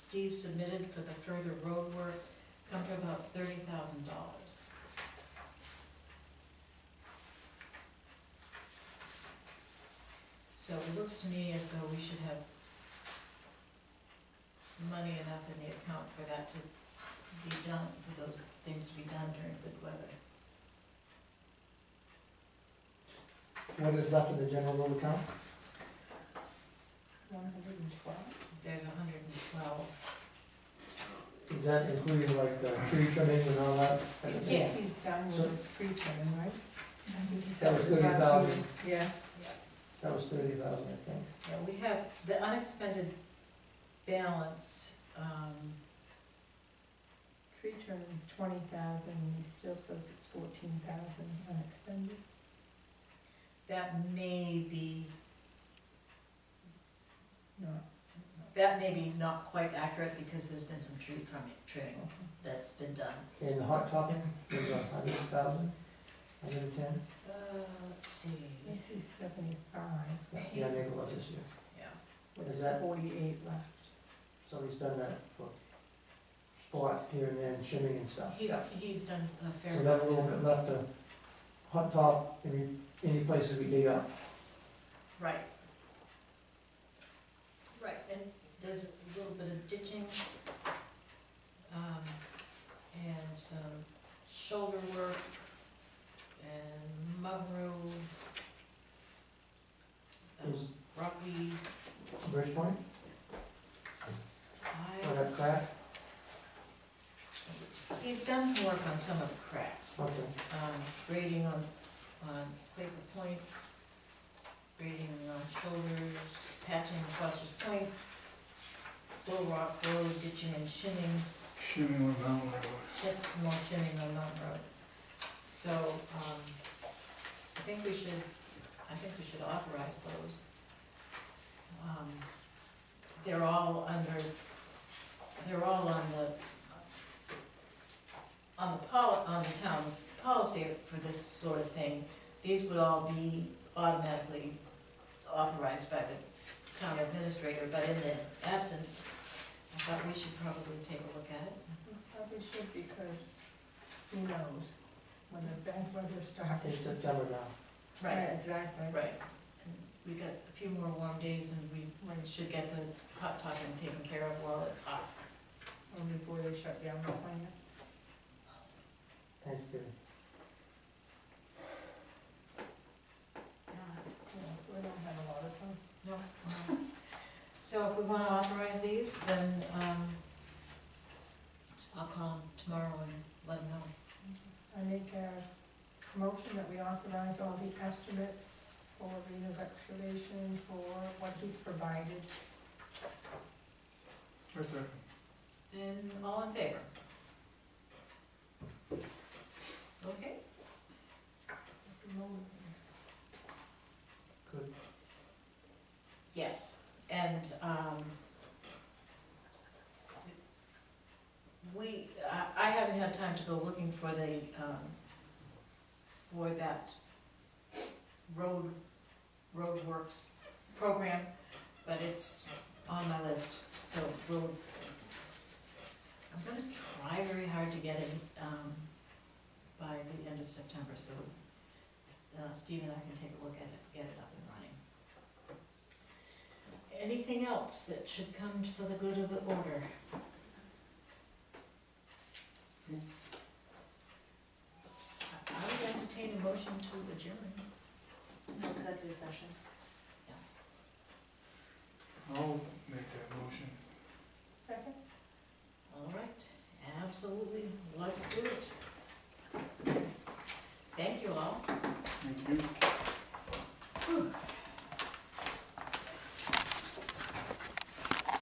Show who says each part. Speaker 1: Steve submitted for the further road work come to about thirty thousand dollars. So it looks to me as though we should have money enough in the account for that to be done, for those things to be done during good weather.
Speaker 2: What is left in the general road account?
Speaker 3: One hundred and twelve?
Speaker 1: There's hundred and twelve.
Speaker 2: Is that including like the tree trimming and all that?
Speaker 1: Yes.
Speaker 3: He's done with the tree trimming, right? I think he
Speaker 2: That
Speaker 3: said
Speaker 2: was
Speaker 3: it was
Speaker 2: thirty
Speaker 3: last
Speaker 2: thousand,
Speaker 3: week. Yeah.
Speaker 2: that was thirty thousand, I think.
Speaker 1: Yeah, we have the unexpended balance, um,
Speaker 3: Tree trimming's twenty thousand, and he still says it's fourteen thousand unexpended.
Speaker 1: that may be,
Speaker 3: No.
Speaker 1: that may be not quite accurate because there's been some tree trimming, trimming
Speaker 3: okay.
Speaker 1: that's been done.
Speaker 2: And the hot topping, was about hundred thousand, hundred and ten?
Speaker 1: Uh, let's see,
Speaker 3: This is seventy-five,
Speaker 2: Yeah, I think it was this year.
Speaker 1: yeah,
Speaker 2: Is
Speaker 3: with
Speaker 2: that-
Speaker 3: forty-eight left.
Speaker 2: Somebody's done that for spot here and there, and shimming and stuff.
Speaker 1: he's, he's done a fair.
Speaker 2: So that
Speaker 1: amount.
Speaker 2: little bit left, the hot top, any, any places we dig up.
Speaker 1: Right. Right, and there's a little bit of ditching, um, and some shoulder work, and mugrow, um,
Speaker 2: Is
Speaker 1: rockweed,
Speaker 2: Bridge Point, or
Speaker 1: I,
Speaker 2: that crack?
Speaker 1: he's done some work on some of the cracks,
Speaker 2: Okay,
Speaker 1: um, grading on, on Quaker Point, grading on shoulders, patching Foster's Point, Bull Rock Road, ditching and shinning,
Speaker 4: Shimmy went down where it was.
Speaker 1: shit, some more shinning on Mountain Road. So, um, I think we should, I think we should authorize those. Um, They're all under, they're all on the, on the pol, on the town policy for this sort of thing. These would all be automatically authorized by the town administrator, but in the absence, I thought we should probably take a look at it.
Speaker 3: We Probably should, because who knows when the bad weather starts.
Speaker 2: it's September now.
Speaker 3: Yeah,
Speaker 1: Right,
Speaker 3: Exactly.
Speaker 1: right. And We got a few more warm days and we should get the hot topping taken care of while it's hot.
Speaker 3: Or before they shut down the plant.
Speaker 2: Thanksgiving.
Speaker 3: Yeah, so we don't have a lot of time.
Speaker 1: No. no. So if we wanna authorize these, then, um, I'll call 'em tomorrow and let them know.
Speaker 3: I make a motion that we authorize all the estimates for Reno's excavation for what he's provided.
Speaker 4: Right there.
Speaker 1: And all in favor? Okay,
Speaker 2: Good.
Speaker 1: yes, and, um, we, I, I haven't had time to go looking for the, um, for that road, roadworks program, but it's on my list, so we'll, I'm gonna try very hard to get it, um, by the end of September, so, uh, Steve and I can take a look at it, get it up and running. Anything else that should come for the good of the order? I I would entertain a motion to adjourn.
Speaker 3: No executive session.
Speaker 4: I'll oh, make that motion.
Speaker 3: Second?
Speaker 1: All right, absolutely, let's do it. Thank you all.
Speaker 4: Thank you.